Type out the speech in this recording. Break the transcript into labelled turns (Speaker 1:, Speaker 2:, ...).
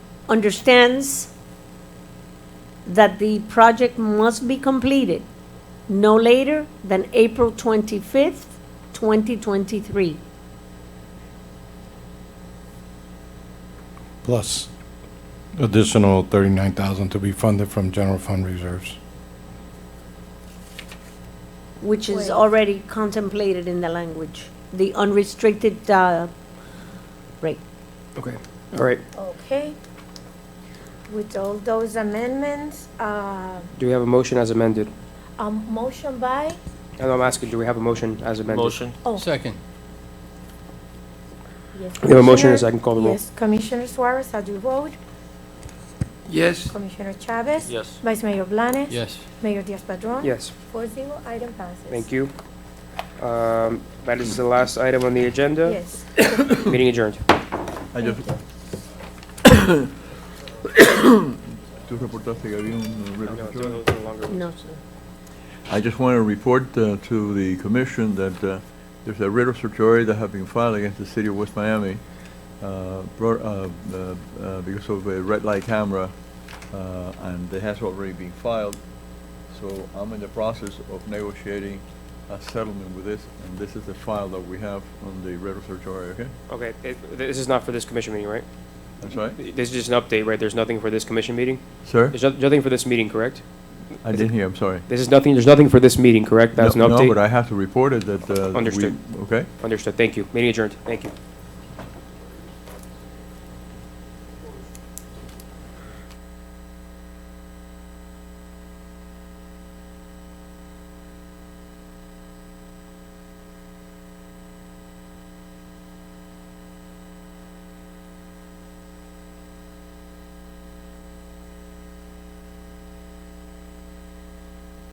Speaker 1: understands that the project must be completed no later than April 25th, 2023.
Speaker 2: plus additional 39,000 to be funded from general fund reserves.
Speaker 1: which is
Speaker 3: Wait.
Speaker 1: already contemplated in the language, the unrestricted, uh, rate.
Speaker 4: Okay, all right.
Speaker 3: Okay. With all those amendments, uh,
Speaker 4: Do we have a motion as amended?
Speaker 3: a motion by,
Speaker 4: And I'm asking, do we have a motion as amended?
Speaker 5: Motion.
Speaker 6: Second.
Speaker 3: yes.
Speaker 4: We have a motion
Speaker 3: Commissioner-
Speaker 4: and a second call the roll.
Speaker 3: Yes, Commissioner Suarez, how do you vote?
Speaker 6: Yes.
Speaker 3: Commissioner Chavez?
Speaker 5: Yes.
Speaker 3: Vice Mayor Blanes?
Speaker 6: Yes.
Speaker 3: Mayor Diaz-Padrón?
Speaker 4: Yes,
Speaker 3: Four zero, item passes.
Speaker 4: thank you. Um, That is the last item on the agenda.
Speaker 3: Yes.
Speaker 4: Meeting adjourned.
Speaker 7: Ah, yo. Tú reportaste que había un reloj control.
Speaker 1: no, sir.
Speaker 7: I just want to report uh, to the commission that uh, there's a writ of certiorari that have been filed against the city of West Miami uh, brought, uh, uh, uh, because of a red light camera, uh, and it has already been filed. So I'm in the process of negotiating a settlement with this, and this is the file that we have on the writ of certiorari, okay?
Speaker 4: Okay, it- this is not for this commission meeting, right?
Speaker 7: That's right?
Speaker 4: This is just an update, right? There's nothing for this commission meeting?
Speaker 7: Sir?
Speaker 4: There's no- nothing for this meeting, correct?
Speaker 7: I didn't hear, I'm sorry.
Speaker 4: This is nothing, there's nothing for this meeting, correct? That's an
Speaker 7: No-
Speaker 4: update?
Speaker 7: No, but I have to report it that. uh, we-
Speaker 4: Understood.
Speaker 7: Okay?
Speaker 4: Understood, thank you. Meeting adjourned, thank you.